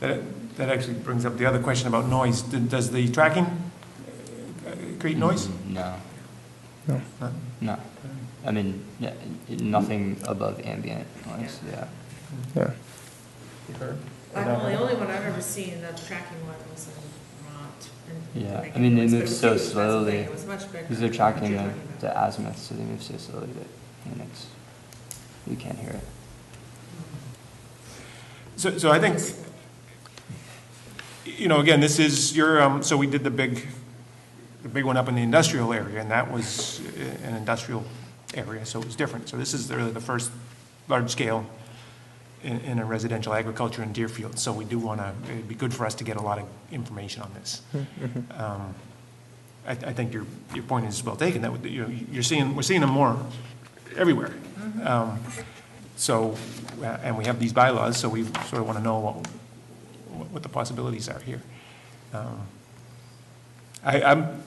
That, that actually brings up the other question about noise. D- Does the tracking uh, create noise? No, No. No? no. I mean, n- nothing above ambient noise, yeah. Yeah. Well, the only one I've ever seen that tracking one was in Vermont. and Yeah, like I mean, they it was- move it was so huge, that's the thing, slowly, It was much bigger. Because they're than what tracking you're the, talking about. the azimuth, so they move so slowly that, and it's, you can't hear it. So, so I think, you know, again, this is your, um, so we did the big, the big one up in the industrial area, and that was i- an industrial area, so it was different. So this is really the first large scale in, in a residential agriculture in Deerfield. So we do want to, it'd be good for us to get a lot of information on this. Mm-hmm. Um, I, I think your, your point is well taken, that, would- you know, you're seeing, we're seeing them more everywhere. Mm-hmm. Um, So, uh, and we have these bylaws, so we sort of want to know what, what the possibilities are here. Um, I, I'm,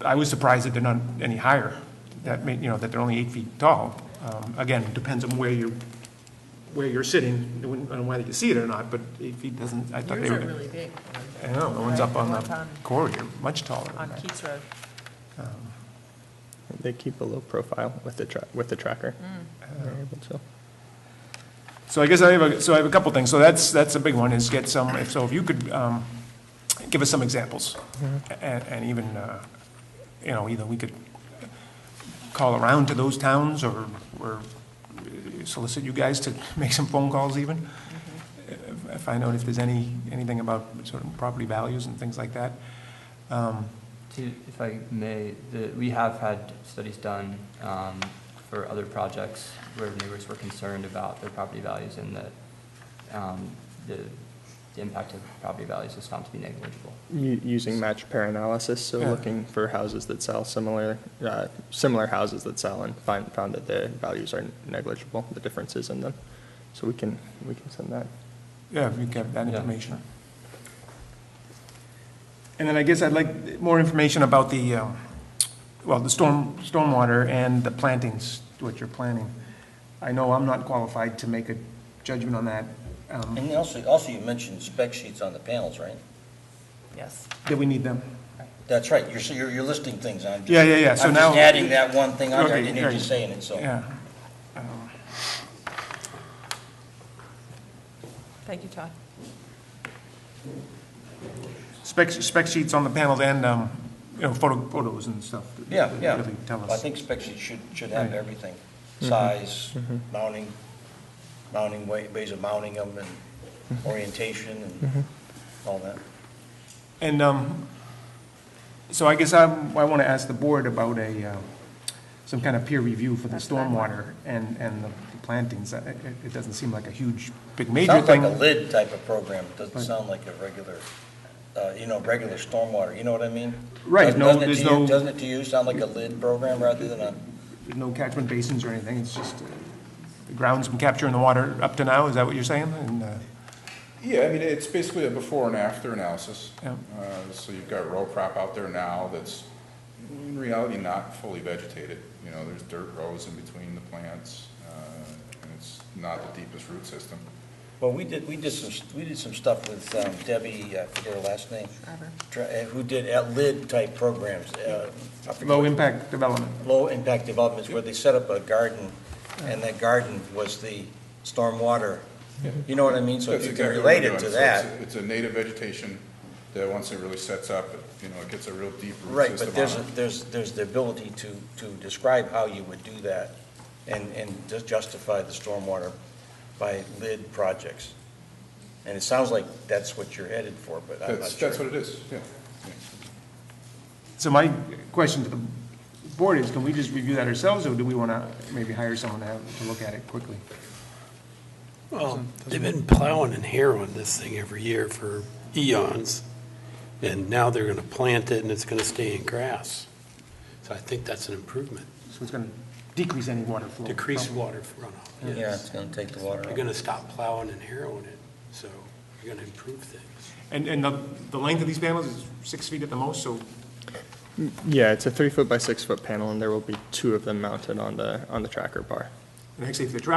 I was surprised that they're not any higher, that, may- you know, that they're only eight feet tall. Um, Again, depends on where you're, where you're sitting, and whether you see it or not, but eight feet doesn't, I thought they Yours were. are really big, I know, the ones up on Right, the the ones on- corridor, much taller than on that. Keats Road. They keep a low profile with the tra- with the tracker. They're able to. So I guess I have, a so I have a couple things. So that's, that's a big one, is get some, if so if you could um, give us some examples. And, and even, uh, you know, either we could call around to those towns or, or solicit you guys to make some phone calls even. Uh, Find out if there's any, anything about sort of property values and things like that. Um, To, if I may, the, we have had studies done, um, for other projects where neighbors were concerned about their property values and that, um, the, the impact of property values was found to be negligible. U- using match pair analysis, so Yeah. looking for houses that sell similar, uh, similar houses that sell and find, found that the values are negligible, the differences in them. So we can, we can send that. Yeah, if you have that Yeah. information. And then I guess I'd like more information about the, um, well, the storm, stormwater and the plantings, what you're planning. I know I'm not qualified to make a judgment on that. Um, And also, also you mentioned spec sheets on the panels, right? Yes. Do we need them? That's right, you're, so you're, you're listing things, I'm just. Yeah, yeah, yeah, so I'm now- just adding that one thing on there, I Okay, didn't hear you right. saying it, so. Yeah. Thank you, Todd. Spec, spec sheets on the panels and, um, you know, photo, photos and stuff. that- Yeah, that yeah. Really tell I us. think spec sheets should, should have Right. Mm-hmm. everything, size, mounting, mounting, wa- ways of mounting them, Mm-hmm. and orientation, and all that. And um, so I guess I'm, I want to ask the board about a, uh, some kind of peer review for the stormwater and, and the plantings. It, it- it doesn't seem like a huge, big major Sounds like a thing. lid type of program, doesn't Right. sound like a regular, uh, you know, regular stormwater, you know what I mean? Right, Doesn't- no, doesn't it there's to you- no- Doesn't it to you sound like a lid program rather than a? No catchment basins or anything, it's just uh, the ground's been capturing the water up to now, is that what you're saying? And, uh, Yeah, I mean, it's basically a before and after analysis. Yeah. Uh, So you've got row crop out there now that's in reality not fully vegetated. You know, there's dirt rows in between the plants, uh, and it's not the deepest root system. Well, we did, we did some, we did some stuff with um, Debbie, I forget her last name. Dr- uh, Who did at lid type programs. uh, I forget Low what- impact development. Low impact developments where they set up a garden and that garden was the stormwater. You know what I mean? So if That's you can exactly what relate we're it to doing. So it's- that. It's a native vegetation that once it really sets up, you know, it gets a real deep root Right, system on it. but there's, a- there's, there's the ability to, to describe how you would do that and, and just justify the stormwater by lid projects. And it sounds like that's what you're headed for, but I'm not That's, sure. that's what it is, yeah. So my question to the board is, can we just review that ourselves, or do we want to maybe hire someone to have, to look at it quickly? Well, Um, they've been plowing and harrowing this thing every year for eons, and now they're gonna plant it and it's gonna stay in grass. So I think that's an improvement, So it's going to decrease any water flow. decrease probably. water runoff. Yeah, it's gonna take the water They're out. gonna stop plowing and harrowing it, so you're gonna improve things. And, and the, the length of these panels is six feet at the most, so Yeah, it's a three foot by six foot panel and there will be two of them mounted on the, on the tracker bar. And actually, if the